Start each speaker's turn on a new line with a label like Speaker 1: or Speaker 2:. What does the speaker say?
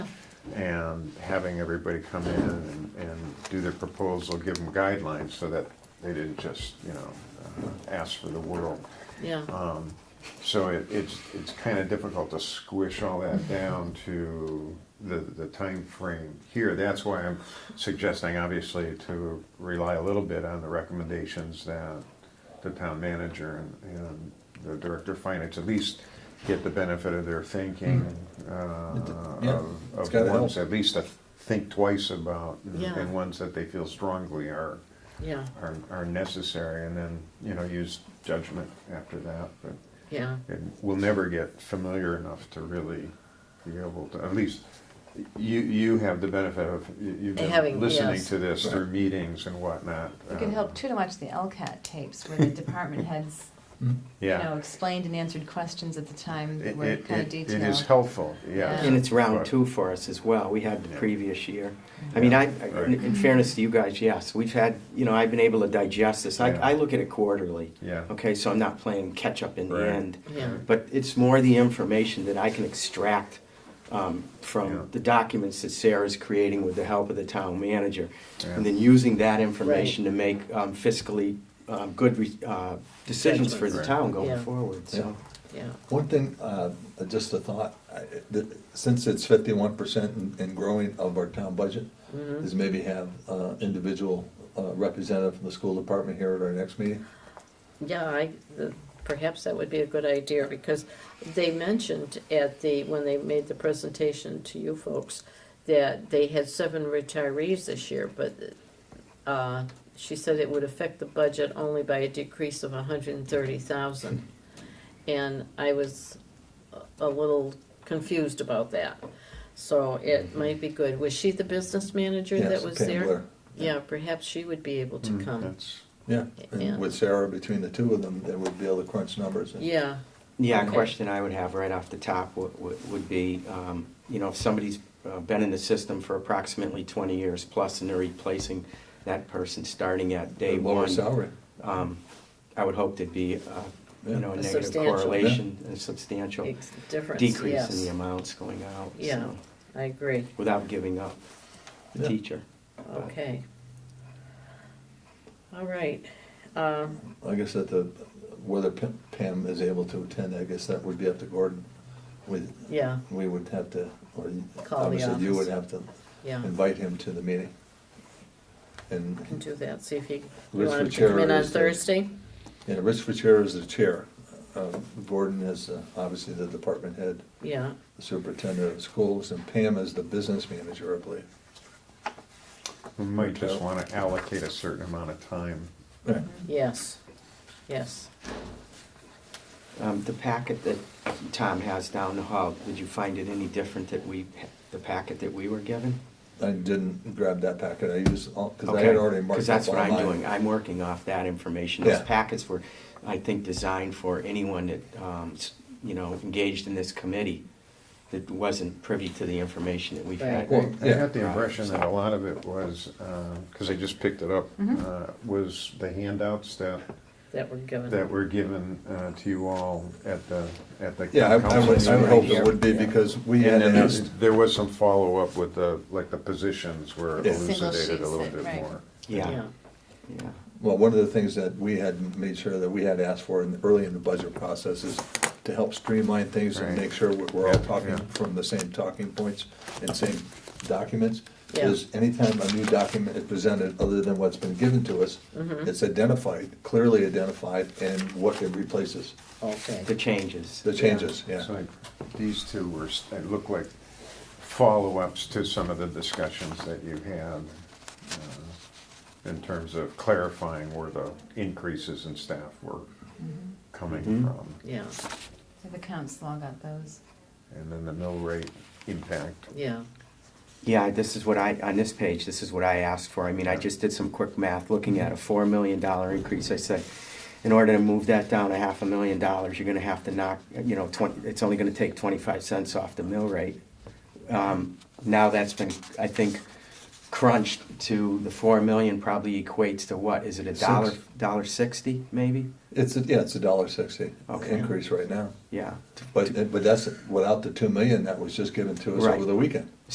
Speaker 1: and having everybody come in and, and do their proposal, give them guidelines so that they didn't just, you know, uh, ask for the world.
Speaker 2: Uh,
Speaker 3: yeah,
Speaker 1: So it, it's, it's kind of difficult to squish all that down to the, the frame here. That's why I'm suggesting, obviously, to rely a little bit on the recommendations that the town manager and, and the director of finance at least get the benefit of their thinking uh,
Speaker 2: Hmm. yeah,
Speaker 1: of
Speaker 2: it's
Speaker 1: of
Speaker 2: gotta
Speaker 1: ones,
Speaker 2: help.
Speaker 1: at least to think twice about, and-
Speaker 3: Yeah.
Speaker 1: and ones that they feel strongly are,
Speaker 3: yeah,
Speaker 1: are, are necessary, and then, you know, use judgment after that, but
Speaker 3: yeah,
Speaker 1: and we'll never get familiar enough to really be able to, at least, you, you have the benefit of, you- you've
Speaker 3: Having-
Speaker 1: been listening
Speaker 3: yes.
Speaker 1: to this through
Speaker 2: Right.
Speaker 1: meetings and whatnot.
Speaker 4: It could
Speaker 1: um,
Speaker 4: help too to watch the LCAT tapes where the department heads,
Speaker 2: Mm.
Speaker 4: you
Speaker 1: Yeah.
Speaker 4: know, explained and answered questions at the time that
Speaker 1: It-
Speaker 4: were
Speaker 1: it-
Speaker 4: kind of
Speaker 1: it-
Speaker 4: detailed.
Speaker 1: It is helpful, yes.
Speaker 4: Yeah.
Speaker 5: And it's round
Speaker 1: But-
Speaker 5: two for us as well. We had the
Speaker 1: Yeah.
Speaker 5: previous year. I mean, I, I- in in fairness to you guys, yes, we've had, you know, I've been able to digest this. I,
Speaker 1: Yeah.
Speaker 5: I look at it quarterly.
Speaker 1: Yeah.
Speaker 5: Okay, so I'm not playing catch-up in the
Speaker 1: Right.
Speaker 5: end.
Speaker 3: yeah,
Speaker 5: But it's more the information that I can extract um,
Speaker 1: Yeah.
Speaker 5: from the documents that Sarah's creating with the help of the town manager. And
Speaker 1: Yeah.
Speaker 5: then using that information to make um, fiscally um, good re- uh, decisions for the
Speaker 1: Judgments.
Speaker 5: town going
Speaker 3: Yeah.
Speaker 5: forward, so.
Speaker 3: yeah,
Speaker 2: One thing, uh, just a thought, I- that- since it's fifty-one percent and growing of our town budget,
Speaker 3: Mm-hmm.
Speaker 2: is maybe have uh, individual uh, representative from the school department here at our next meeting.
Speaker 3: yeah, I, the- perhaps that would be a good idea, because they mentioned at the, when they made the presentation to you folks, that they had seven retirees this year, but, uh, she said it would affect the budget only by a decrease of hundred and thirty thousand. And I was a- a little confused about that, so it might be good. Was she the business manager that
Speaker 2: Mm-hmm.
Speaker 3: was
Speaker 2: Yes, Pam
Speaker 3: there?
Speaker 2: Blair.
Speaker 3: Yeah, perhaps she would be able to
Speaker 1: Mm,
Speaker 3: come.
Speaker 1: that's-
Speaker 2: Yeah,
Speaker 3: Yeah.
Speaker 2: and with Sarah, between the two of them, they would be able to crunch numbers. and-
Speaker 3: Yeah,
Speaker 5: Yeah, a
Speaker 3: Okay.
Speaker 5: question I would have right off the top would, would be, um, you know, if somebody's uh, been in the system for approximately twenty years plus and they're replacing that person starting at day
Speaker 2: Lower
Speaker 5: one.
Speaker 2: salary.
Speaker 5: Um, I would hope there'd be, uh, you
Speaker 2: Yeah.
Speaker 5: know, a
Speaker 3: A
Speaker 5: negative
Speaker 3: substantial-
Speaker 5: correlation, a substantial
Speaker 3: ex- difference,
Speaker 5: decrease in
Speaker 3: yes.
Speaker 5: the amounts going out,
Speaker 3: Yeah.
Speaker 5: so,
Speaker 3: I agree,
Speaker 5: without giving up the
Speaker 2: Yeah.
Speaker 5: teacher.
Speaker 3: okay. All right, um,
Speaker 2: I guess that the, whether Pam- Pam is able to attend, I guess that would be up to Gordon. We,
Speaker 3: yeah,
Speaker 2: we would have to, or you-
Speaker 3: Call the
Speaker 2: obviously you
Speaker 3: office.
Speaker 2: would have to
Speaker 3: yeah,
Speaker 2: invite him to the meeting. And
Speaker 3: can do that, see if he, you
Speaker 2: Liz
Speaker 3: want him to come in
Speaker 2: Fitzgerald
Speaker 3: on
Speaker 2: is the-
Speaker 3: Thursday?
Speaker 2: Yeah, Rich Fitzgerald is the chair. Uh, Gordon is uh, obviously the department head,
Speaker 3: Yeah,
Speaker 2: the superintendent of schools, and Pam is the business manager, I believe.
Speaker 1: We might just
Speaker 2: Okay.
Speaker 1: want to allocate a certain amount of time.
Speaker 2: Right.
Speaker 3: yes, yes,
Speaker 5: Um, the packet that Tom has down the hall, did you find it any different that we, the packet that we were given?
Speaker 2: I didn't grab that packet, I used, because I had
Speaker 5: Okay.
Speaker 2: already marked
Speaker 5: 'Cause
Speaker 2: up
Speaker 5: that's what
Speaker 2: one
Speaker 5: I'm
Speaker 2: line.
Speaker 5: doing, I'm working off that information. Those
Speaker 2: Yeah.
Speaker 5: packets were, I think, designed for anyone that, um, s- you know, engaged in this committee that wasn't privy to the information that we've had.
Speaker 2: Right.
Speaker 1: Well, I
Speaker 2: Yeah.
Speaker 1: got the impression that a lot of it was, because I just picked it up,
Speaker 4: Mhm.
Speaker 1: uh, was the handouts that
Speaker 3: that we're given.
Speaker 1: that were given uh, to you all at the, at the.
Speaker 2: Yeah, I I
Speaker 1: council
Speaker 2: would, I would
Speaker 1: meeting.
Speaker 2: hope it would be,
Speaker 5: Yeah.
Speaker 2: because we had
Speaker 1: And then
Speaker 2: asked,
Speaker 1: there's- there was some follow-up with the, like, the positions were
Speaker 2: Yeah. Single
Speaker 1: elucidated a
Speaker 4: sheets
Speaker 1: little
Speaker 4: that-
Speaker 1: bit
Speaker 4: right.
Speaker 1: more.
Speaker 5: Yeah, yeah.
Speaker 2: well, one of the things that we had made sure that we had asked for in, early in the budget process is to help streamline things and
Speaker 1: Right.
Speaker 2: make sure we're- we're all
Speaker 1: Yeah,
Speaker 2: talking
Speaker 1: yeah.
Speaker 2: from the same talking points and same documents.
Speaker 3: Yeah.
Speaker 2: Is anytime a new document is presented, other than what's been given to us, it's identified, clearly identified, and what it replaces,
Speaker 3: Okay,
Speaker 5: The changes.
Speaker 2: the changes, yeah.
Speaker 1: It's like, these two were, s- they look like follow-ups to some of the discussions that you had uh, in terms of clarifying where the increases in staff were
Speaker 4: Mm-hmm.
Speaker 1: coming
Speaker 2: Mm-hmm.
Speaker 5: Mhm.
Speaker 1: from.
Speaker 3: yeah,
Speaker 4: So The council all got those.
Speaker 1: And then the mill rate impact.
Speaker 3: yeah,
Speaker 5: Yeah, this is what I, on this page, this is what I asked for. I mean, I just did some quick math, looking at a four million dollar increase. I said, in order to move that down a half a million dollars, you're gonna have to knock, you know, twenty, it's only gonna take twenty-five cents off the mill rate. Um, now that's been, I think, crunched to the four million probably equates to what? Is it a
Speaker 2: Six.
Speaker 5: dollar, dollar sixty, maybe?
Speaker 2: It's, a- yeah, it's a dollar sixty
Speaker 5: Okay.
Speaker 2: increase right now.
Speaker 5: Yeah.
Speaker 2: But, but that's without the two million that was just given to us
Speaker 5: Right.
Speaker 2: over the weekend.